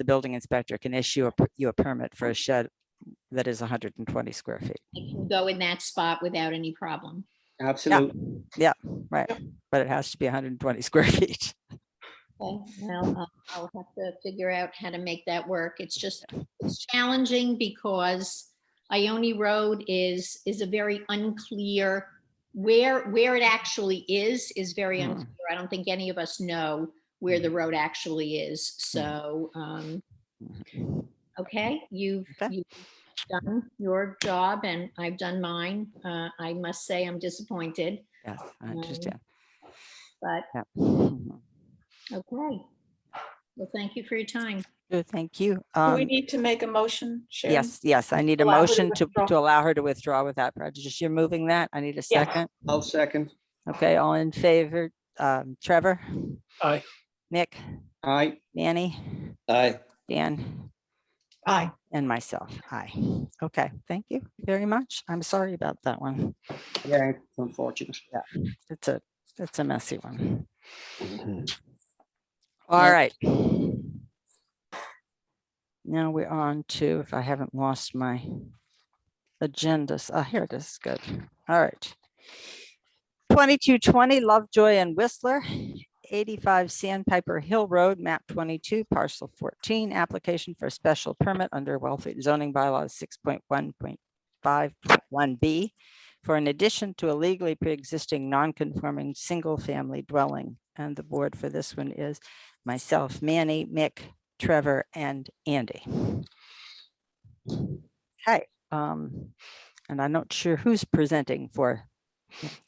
the building inspector can issue a per- you a permit for a shed that is hundred and twenty square feet, It can go in that spot without any problem. Absolutely. right? But it has to be hundred and twenty square feet. Okay, well, I'll- I'll have to figure out how to make that work. It's just, it's challenging because Ione Road is, is a very unclear, where, where it actually is, is very Hmm. unclear. I don't think any of us know where the road actually is, Hmm. so, um, okay, you've, Okay. you've done your job and I've done mine. Uh, I must say I'm disappointed, Yes, I Um, understand. but, Mm-hmm. Yeah. Mhm. okay. Well, thank you for your time. Good, thank you. Do Um, we need to make a motion, Sharon? Yes, yes, I need a Allow her to motion to, withdraw. to allow her to withdraw without prejudice. You're moving that. I need a Yeah. second. I'll second. Okay, all in favor, um, Trevor, Aye. Nick, Aye. Manny, Aye. Dan, Aye. and myself. Aye. Okay, thank you very much. I'm sorry about that one. Yeah, it's unfortunate. It's a, it's a messy one. All right. Now we're on to, if I haven't lost my agendas, ah, here it is, good. All right. Twenty-two twenty Lovejoy and Whistler, eighty-five Sandpiper Hill Road, map twenty-two, parcel fourteen, application for a special permit under Wellfleet zoning bylaws six point one point five point one B for an addition to a legally pre-existing non-conforming single-family dwelling. And the board for this one is myself, Manny, Mick, Trevor, and Andy. Hi, um, and I'm not sure who's presenting for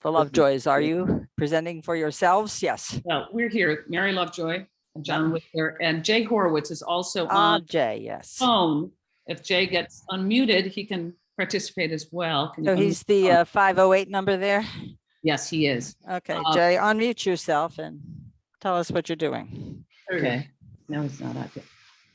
the Lovejoys. Are you presenting for yourselves? Yes. Well, we're here, Mary Lovejoy and John Whitler, and Jay Horowitz is also Ah, on Jay, yes. phone. If Jay gets unmuted, he can participate as well. Can you So unmute- he's the uh, 508 number there. Yes, he is. Okay, Uh, Jay, unmute yourself and tell us what you're doing. Okay, no, he's not up yet.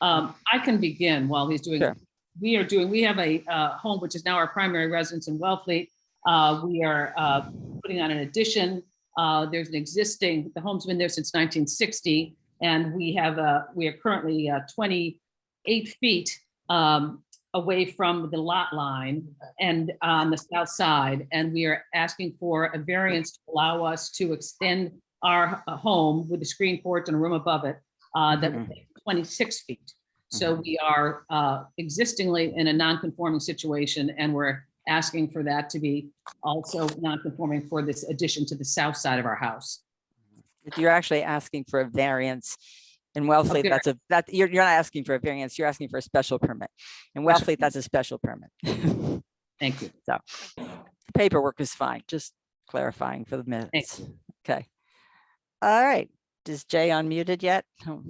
Um, I can begin while he's doing, Sure. we are doing, we have a, uh, home which is now our primary residence in Wellfleet. Uh, we are, uh, putting on an addition. Uh, there's an existing, the home's been there since nineteen sixty. And we have, uh, we are currently, uh, twenty-eight feet, um, away from the lot line and on the south side. And we are asking for a variance to allow us to extend our uh, home with a screen porch and a room above it uh, that would make it 26 feet. So we are uh, existingly in a non-conforming situation, and we're asking for that to be also non-conforming for this addition to the south side of our house. You're actually asking for a variance. In Wellfleet, var- that's a, that, you're, you're not asking for a variance, you're asking for a special permit. In Special Wellfleet, that's a special permit. Thank you. Paperwork is fine, just clarifying for the minutes. Okay. All right, is Jay unmuted yet? Oh,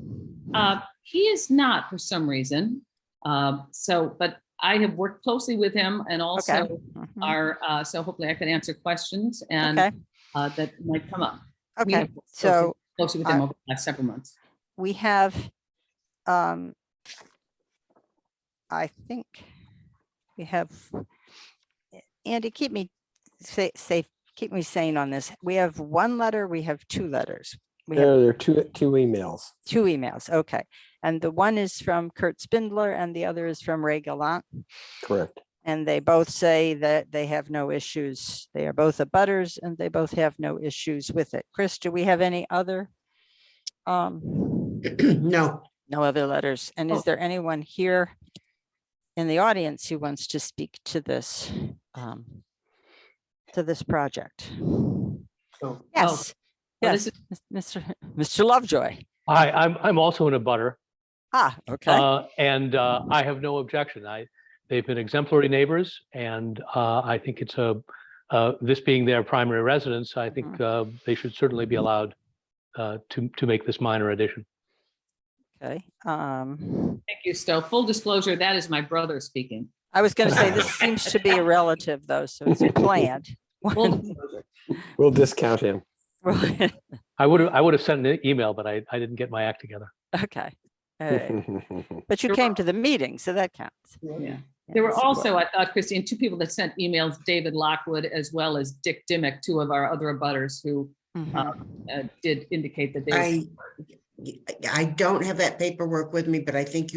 Uh, He is not for some reason. Um, So, but I have worked closely with him and also mhm. are, uh, so hopefully I can answer questions and Okay, uh, that might come up. We okay, have worked so Closely with him over the last several months. we have, um, I think we have, Andy, keep me sa- safe, keep me sane on this. We have one letter, we have two letters. We have There there are two, two emails. two emails, okay. And the one is from Kurt Spindler and the other is from Ray Gallant. Correct. And they both say that they have no issues. They are both abutters and they both have no issues with it. Chris, do we have any other? Um, No, no other letters. And Oh. is there anyone here in the audience who wants to speak to this, um, to this project? So- Oh, Yes, well, this yes, Mr. Mr. Lovejoy. Hi, I'm, I'm also in a butter, Ah, okay. uh, and, uh, I have no objection. I, they've been exemplary neighbors and, uh, I think it's a, uh, this being their primary residence, I think, uh, they should certainly be allowed, uh, to, to make this minor addition. Okay. Um, Thank you, Stowe. Full disclosure, that is my brother speaking. I was going to say, this seems to be a relative though, so it's planned. Full disclosure. We'll discount him. Right. I would have, I would have sent an e-, email, but I, I didn't get my act together. Okay. all right. But you You're came to the meeting, so that counts. Yeah. Yeah, There were so- also, I thought, Christine, two people that sent emails, David Lockwood as well as Dick Dimick, two of our other abutters who Mhm. uh, uh, did indicate that they. were I, I don't have that paperwork with me, but I think you